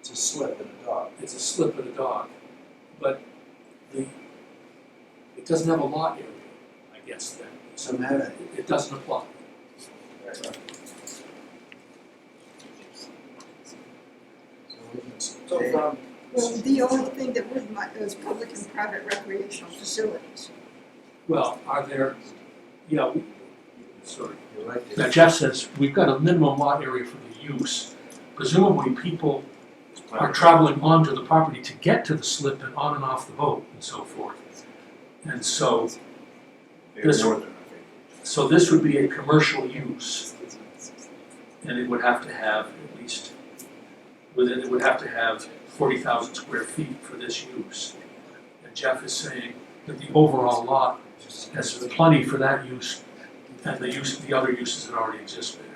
It's a slip in a dog. it's a slip of the dog, but the, it doesn't have a lot area, I guess, then, It's a meta. It- it doesn't apply. So we can s- So from, Well, the only thing that would might is public and private recreational facilities. Well, are there, yeah, we- sorry. You're right. Now there. Jeff says, we've got a minimum lot area for the use. Presumably, people are traveling onto the property to get to the slip and on and off the boat and so forth. And so, They're this- northern, I think. so this would be a commercial use. And it would have to have at least, within, it would have to have forty thousand square feet for this use. And Jeff is saying that the overall lot has plenty for that use and the use, the other uses that already exist there.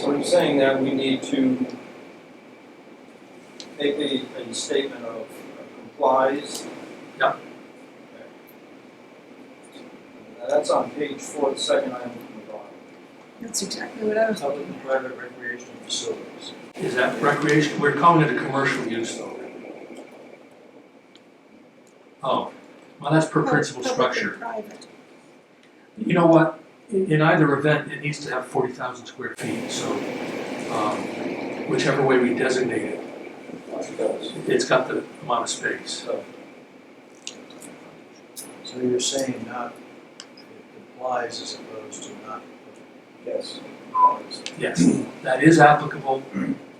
so you're saying that we need to make a, a statement of complies? Yep. Okay. Now, That's on page four, the second item from the bottom. That's exactly what I was Public looking and at. private recreational facilities. Is that recreation, we're calling it a commercial use though. Oh, well, that's per Pub- principal structure. Public and private. You know what, in in either event, it needs to have forty thousand square feet, so, um, whichever way we designate it, it's got the amount of space. So, So you're saying not, it complies as opposed to not yes. complies. Yes, that is applicable,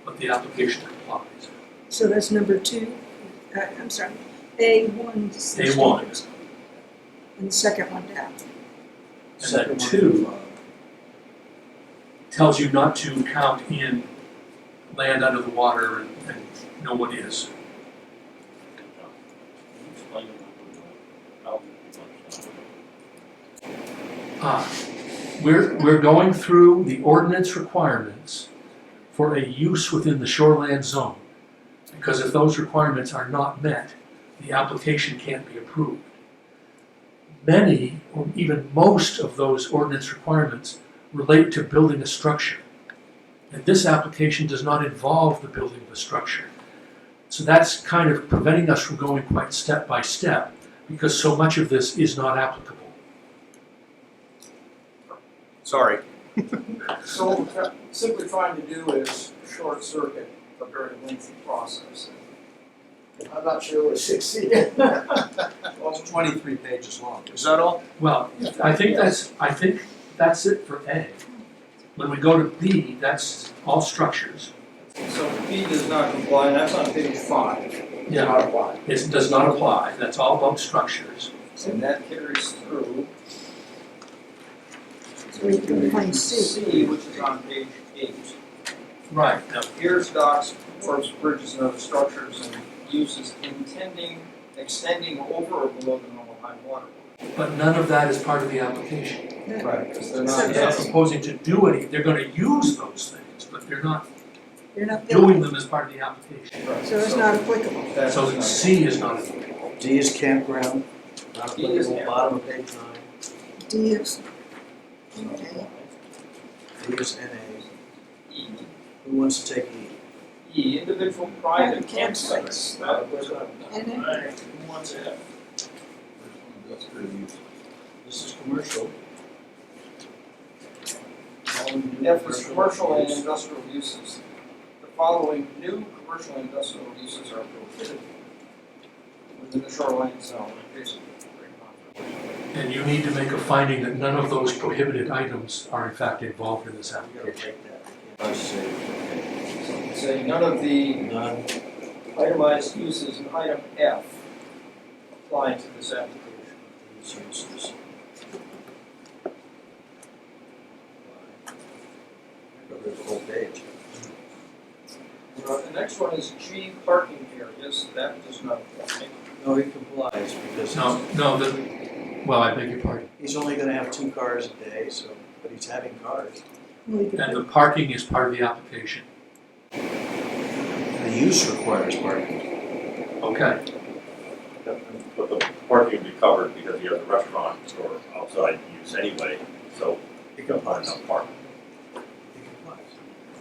but the application complies. So that's number two, uh, I'm sorry, A one. A one. And the second one down. And that two tells you not to count in land under the water and, and no one is. Ah, We're, we're going through the ordinance requirements for a use within the shoreland zone. Because if those requirements are not met, the application can't be approved. Many, or even most of those ordinance requirements relate to building a structure. And this application does not involve the building of a structure. So that's kind of preventing us from going quite step by step, because so much of this is not applicable. Sorry. So what we're simply trying to do is short circuit a very lengthy process. I'm not sure we succeeded. Well, it's twenty-three pages long. Is that all? Well, I think that's, I think that's it for A. When we go to B, that's all structures. So B does not comply, and that's on page five. Yeah, Not apply. it does not apply, that's all about structures. And that carries through So we can find C. C, which is on page eight. Right. Now, Piers, docks, wharves, bridges, and other structures and uses intending, extending over or below the normal high water. But none of that is part of the application. Right. Because They're So they're not, not that's- yes, proposing to do any, they're gonna use those things, but they're not You're not doing building, them as part of the application. right, so it's not applicable. that's So not- C is not, D is campground, not D is applicable, bottom of page nine. D is, okay, D is NA. E, Who wants to take E? E, individual private Private campsites. campsites. That was not. And then- Who wants to have? That's pretty easy. This is commercial. All we do If is it's commercial and industrial uses, the following new commercial and industrial uses are prohibited within the shoreline zone, basically. and you need to make a finding that none of those prohibited items are in fact involved in this We gotta application. take that. I see. Say none of the None, itemized uses in item F apply to this application. these uses. Cover the whole page. Uh, The next one is G parking areas, that does not apply. No, he complies because No, no, the, well, I beg your pardon. he's only gonna have two cars a day, so, but he's having cars. we could And the parking is part of the application. The use requires parking. Okay. But the parking would be covered because you have the restaurant or outside use anyway, so you can find enough parking.